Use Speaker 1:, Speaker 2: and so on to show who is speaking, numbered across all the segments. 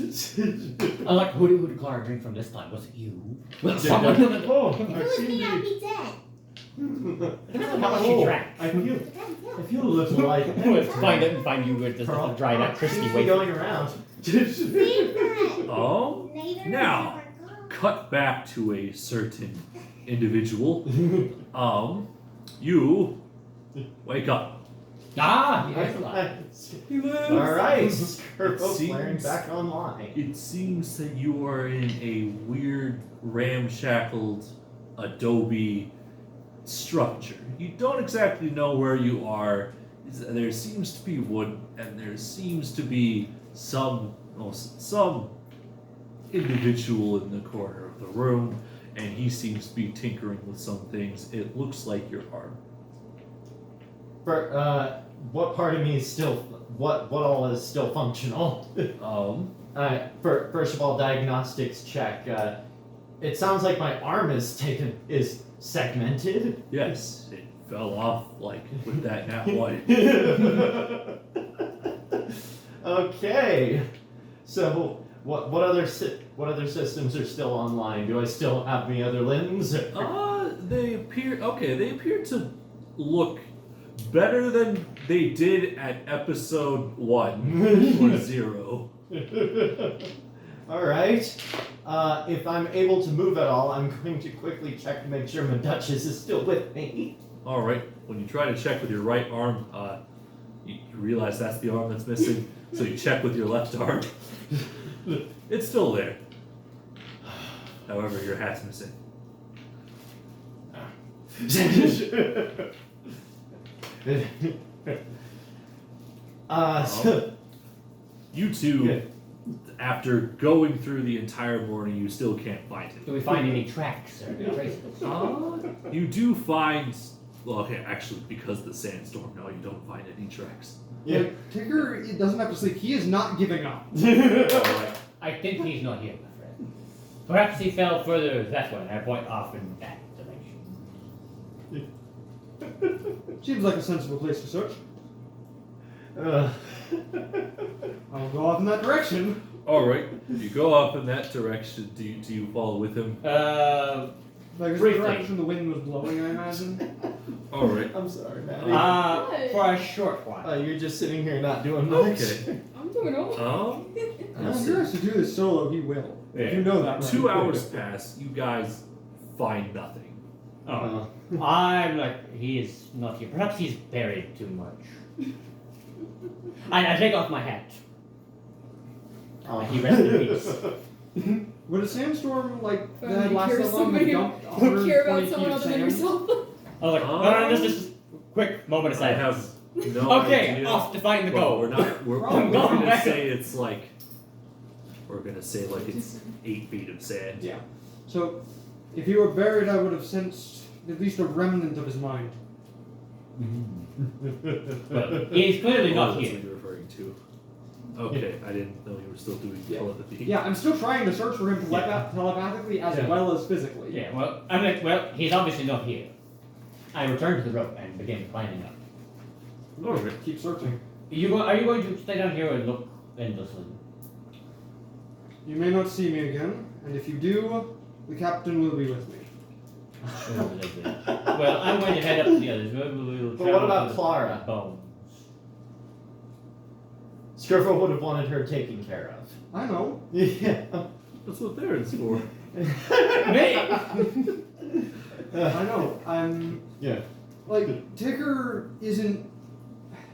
Speaker 1: I'm like, who, who did Clara drink from this time? Was it you? Well,
Speaker 2: Yeah,
Speaker 1: someone.
Speaker 2: Oh,
Speaker 3: If
Speaker 2: I
Speaker 3: it was
Speaker 2: seem
Speaker 3: me, I'd
Speaker 2: to
Speaker 3: be dead.
Speaker 2: be.
Speaker 1: It depends on how much you
Speaker 2: Oh,
Speaker 1: drank.
Speaker 2: I feel,
Speaker 3: But I'm
Speaker 2: I
Speaker 3: killed.
Speaker 2: feel a little like.
Speaker 1: Let's find out and find you with this little dried up crispy
Speaker 4: Seems to be
Speaker 1: wafer.
Speaker 4: going around.
Speaker 3: Save that.
Speaker 5: Oh?
Speaker 3: Neither
Speaker 5: Now.
Speaker 3: of us are gone.
Speaker 5: Cut back to a certain individual. Um, you wake up.
Speaker 1: Ah, yes, Clara.
Speaker 4: All
Speaker 5: He lives.
Speaker 4: right,
Speaker 5: It
Speaker 4: Skirbo
Speaker 5: seems-
Speaker 4: flaring back online.
Speaker 5: It seems that you are in a weird, ramshackled adobe structure. You don't exactly know where you are. It's- There seems to be wood, and there seems to be some no, s- some individual in the corner of the room, and he seems to be tinkering with some things. It looks like your arm.
Speaker 4: For, uh, what part of me is still what what all is still functional?
Speaker 5: Um,
Speaker 4: Uh, for, first of all, diagnostics check. Uh, it sounds like my arm is taken is segmented.
Speaker 5: yes, it fell off like with that nat one.
Speaker 4: okay, so what what other sy- what other systems are still online? Do I still have any other limbs?
Speaker 5: Uh, they appear okay. They appear to look better than they did at episode one or zero.
Speaker 4: all right. Uh, if I'm able to move at all, I'm going to quickly check to make sure my Duchess is still with me.
Speaker 5: All right. When you try to check with your right arm, uh, you, you realize that's the arm that's missing. so you check with your left arm. it's still there. However, your hat's missing.
Speaker 4: uh, so,
Speaker 5: You two, after going through the entire morning, you still can't find it.
Speaker 1: Do we find any tracks or traces? Ah,
Speaker 5: Uh, you do find. Well, okay, actually, because of the sandstorm, no, you don't find any tracks.
Speaker 4: yeah.
Speaker 6: Tinker it doesn't have to sleep. He is not giving up.
Speaker 5: Alright.
Speaker 1: I think he's not here, my friend. Perhaps he fell further that way, and I point off in that direction.
Speaker 6: Seems like a sensible place to search.
Speaker 4: Uh,
Speaker 6: I'll go off in that direction.
Speaker 5: Alright, you go up in that direction. Do you, do you follow with him?
Speaker 1: Uh,
Speaker 6: Like, it's the
Speaker 1: Briefly.
Speaker 6: direction the wind was blowing, I imagine.
Speaker 5: Alright.
Speaker 4: I'm sorry, Maddie.
Speaker 1: uh, for a short
Speaker 4: Uh,
Speaker 1: while.
Speaker 4: you're just sitting here not doing much.
Speaker 5: Okay.
Speaker 7: I'm doing all
Speaker 5: Um,
Speaker 6: I'm serious to do this solo, he will. If
Speaker 1: Yeah.
Speaker 6: you know that. Right?
Speaker 5: two hours pass, you guys find nothing.
Speaker 1: Oh,
Speaker 4: Uh,
Speaker 1: I'm like, he is not here. Perhaps he's buried too much. I, I take off my hat. oh, He rest in peace.
Speaker 6: Would a sandstorm like
Speaker 7: Fine,
Speaker 6: that
Speaker 7: you
Speaker 6: last
Speaker 7: care
Speaker 6: that long
Speaker 7: somebody-
Speaker 6: and dump
Speaker 7: You care about
Speaker 6: 120 feet
Speaker 7: someone
Speaker 6: of
Speaker 7: other than
Speaker 6: sand?
Speaker 7: yourself.
Speaker 1: I was like, Oh, no, no, no, this is quick moment of
Speaker 5: I
Speaker 1: silence.
Speaker 5: have no
Speaker 1: okay,
Speaker 5: idea.
Speaker 1: off to find the
Speaker 5: but
Speaker 1: goal.
Speaker 5: We're not. We're,
Speaker 1: Wrong.
Speaker 5: we're gonna
Speaker 1: Wrong.
Speaker 5: say it's like. We're gonna say like it's eight feet of sand.
Speaker 6: Yeah. So, if he were buried, I would have sensed at least a remnant of his mind.
Speaker 1: Well, he's clearly
Speaker 5: Oh,
Speaker 1: not
Speaker 5: that's
Speaker 1: here.
Speaker 5: what you're referring to. Okay, I didn't know you were still doing
Speaker 6: Yeah.
Speaker 5: telepathy.
Speaker 6: Yeah, I'm still trying to search for him tele-
Speaker 1: Yeah.
Speaker 6: telepathically as
Speaker 4: Yeah.
Speaker 6: well as physically.
Speaker 1: Yeah, well, I'm like, well, he's obviously not here. I return to the rope and begin climbing up.
Speaker 5: Alright.
Speaker 6: Keep searching.
Speaker 1: You go, are you going to stay down here and look and listen?
Speaker 6: You may not see me again, and if you do, the captain will be with me.
Speaker 1: well, I'm going to head up to the others. Maybe we will
Speaker 4: But what
Speaker 1: travel
Speaker 4: about
Speaker 1: to the
Speaker 4: Clara?
Speaker 1: Bones.
Speaker 4: Scriffle would have wanted her taken care of.
Speaker 6: I know.
Speaker 4: Yeah.
Speaker 5: That's what there is for.
Speaker 6: I know. I'm.
Speaker 4: Yeah.
Speaker 6: Like, Ticker isn't.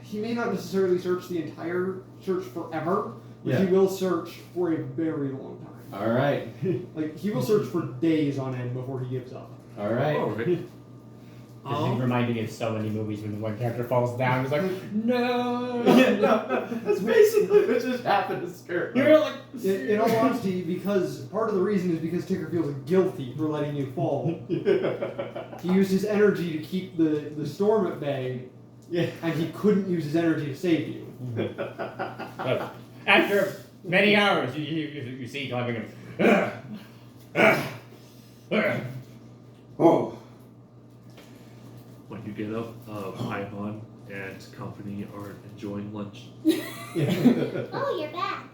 Speaker 6: He may not necessarily search the entire search forever, but he will search for a very long time.
Speaker 4: All right.
Speaker 6: Like, he will search for days on end before he gives up.
Speaker 4: All
Speaker 1: Oh.
Speaker 4: right.
Speaker 5: Alright.
Speaker 1: This
Speaker 4: Oh.
Speaker 1: is reminding me of so many movies when one character falls down. It's like, no.
Speaker 4: Yeah, no, no, that's basically what just happened to
Speaker 1: You're
Speaker 4: Scriffle.
Speaker 1: like,
Speaker 6: In, in all honesty, because part of the reason is because Ticker feels guilty for letting you fall. He used his energy to keep the, the storm at bay,
Speaker 4: Yeah.
Speaker 6: and he couldn't use his energy to save you.
Speaker 1: Look, after many hours, you, you, you, you see climbing him. "Ugh, ugh, ugh."
Speaker 6: Oh.
Speaker 5: When you get up, uh, Paimon and company are enjoying lunch.
Speaker 4: Yeah.
Speaker 3: Oh, you're back.